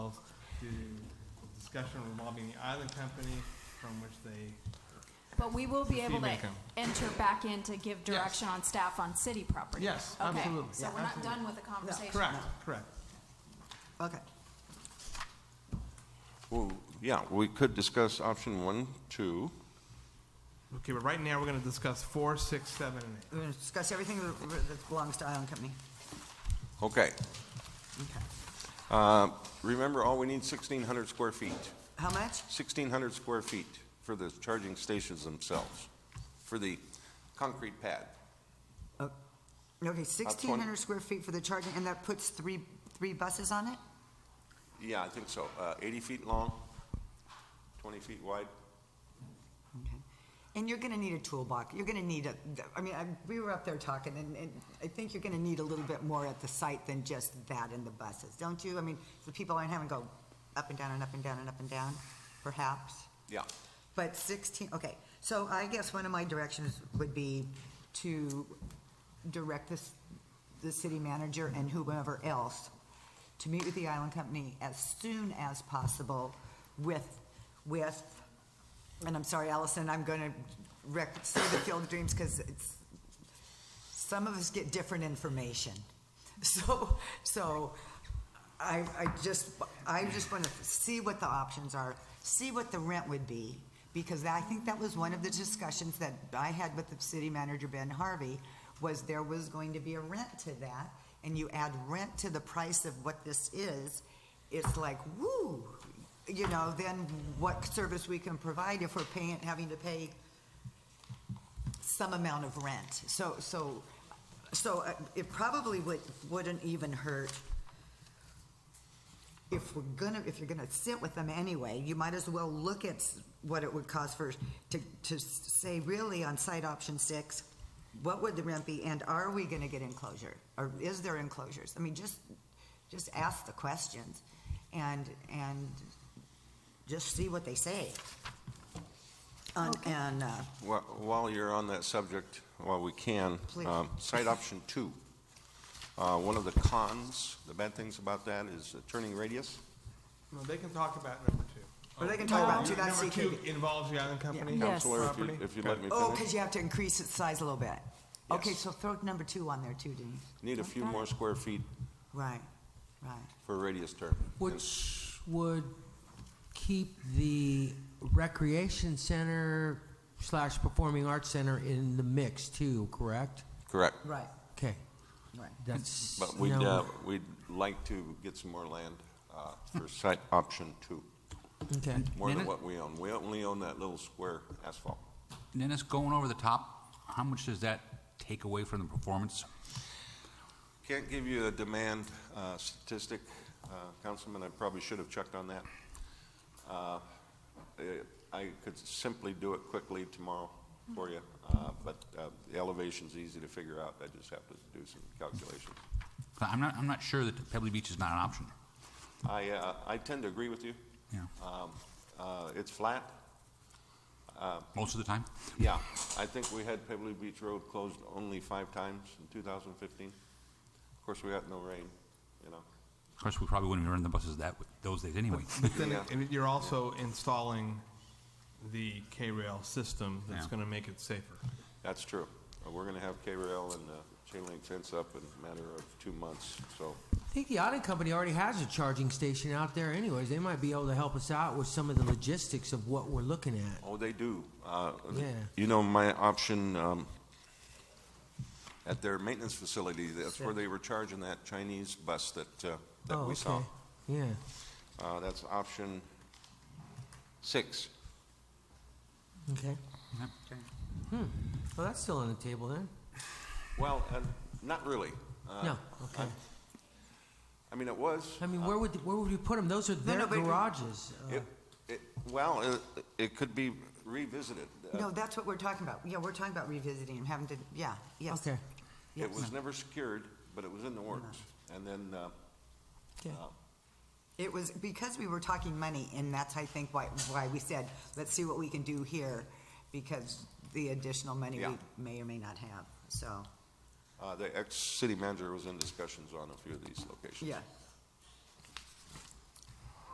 due to discussion involving the island company from which they But we will be The able fee to may come. enter back in to give direction on staff on city property. Yes, Okay, absolutely. So Yeah, we're not absolutely. done with the conversation. Correct, correct. Okay. Well, yeah, we could discuss option one, two. Okay, but right now, we're gonna discuss four, six, seven, and eight. We're going to discuss everything that- that belongs to Island Company. Okay. Okay. Uh, Remember, all we need 1,600 square feet. How much? 1,600 square feet for the charging stations themselves, for the concrete pad. Okay, sixteen hundred square feet for the charging, and that puts three, three buses on it? Yeah, I think so. Uh, 80 feet long, 20 feet wide. Okay. And you're gonna need a toolbox, you're gonna need a, I mean, I, we were up there talking, and, and I think you're gonna need a little bit more at the site than just that and the buses, don't you? I mean, the people aren't having to go up and down and up and down and up and down, perhaps? Yeah. But 16, okay, so I guess one of my directions would be to direct this, the city manager and whomever else to meet with the island company as soon as possible with, with, and I'm sorry, Allison, I'm gonna wreck, say the field of dreams, because it's, some of us get different information. So, so I, I just, I just want to see what the options are, see what the rent would be, because I think that was one of the discussions that I had with the city manager, Ben Harvey, was there was going to be a rent to that, and you add rent to the price of what this is, it's like, woo, you know, then what service we can provide if we're paying, having to pay some amount of rent. So, so, so uh, it probably would, wouldn't even hurt if we're gonna, if you're gonna sit with them anyway, you might as well look at s- what it would cost for, to, to s- say really on site option six, what would the rent be and are we gonna get enclosure? Or is there enclosures? I mean, just, just ask the questions and, and just see what they say. On, and, uh, Wha- While you're on that subject, while we can, Please. um, site option two. Uh, One of the cons, the bad things about that is the turning radius. No, they can talk about number two. Or they can talk about two, that's Number two CKD. involves the island company? Yeah. Yes. Counselor, if you- Property? if you'd let me Oh, finish. because you have to increase its size a little bit. Okay, Yes. so throw number two on there too, Denise. Need a few more square feet Right, right. for radius turn. Which would keep the recreation center slash performing arts center in the mix too, correct? Correct. Right, Okay, right. that's. But we'd, no- uh, we'd like to get some more land uh, for site option two, uh, Okay, more than Dennis? what we own. We only own that little square asphalt. Dennis, going over the top, how much does that take away from the performance? Can't give you a demand uh, statistic, uh, Councilman, I probably should have checked on that. Uh, eh, I could simply do it quickly tomorrow for you, uh, but uh, the elevation's easy to figure out, I just have to do some calculations. I'm not, I'm not sure that Pebbly Beach is not an option. I, uh, I tend to agree with you. Yeah. Um, uh, It's flat, Most of the time? Yeah, I think we had Pebbley Beach Road closed only five times in 2015. Of course, we got no rain, you know. Of course, we probably wouldn't have run the buses that, those days anyway. But then Yeah. it- you're also installing the K-rail system that's Yeah. gonna make it safer. That's true. Uh, We're going to have K-rail and uh, chain link fence up in a matter of two months, so, I think the audit company already has a charging station out there anyways. They might be able to help us out with some of the logistics of what we're looking at. oh, they do. Uh, Yeah. You know, my option, um, at their maintenance facility, that's where they were charging that Chinese bus that, uh, that Oh, we saw. okay. Yeah, Uh, That's option six. okay. Well, that's still on the table then? Well, uh, not really. Uh, No, okay. I mean, it was. I mean, where would, where would we put them? Those are no, their but- garages. Uh, It- it- Well, it- it could be revisited. Uh, No, that's what we're talking about. Yeah, we're talking about revisiting and having to, yeah, yes. Uh, Okay, yes. Uh-huh. It was never secured, but it was in the works. And then, uh, okay. It was because we were talking money, and that's, I think, why, why we said, let's see what we can do here, because the additional money Yeah. we may or may not have, so, uh, the ex-city manager was in discussions on a few of these locations. yeah,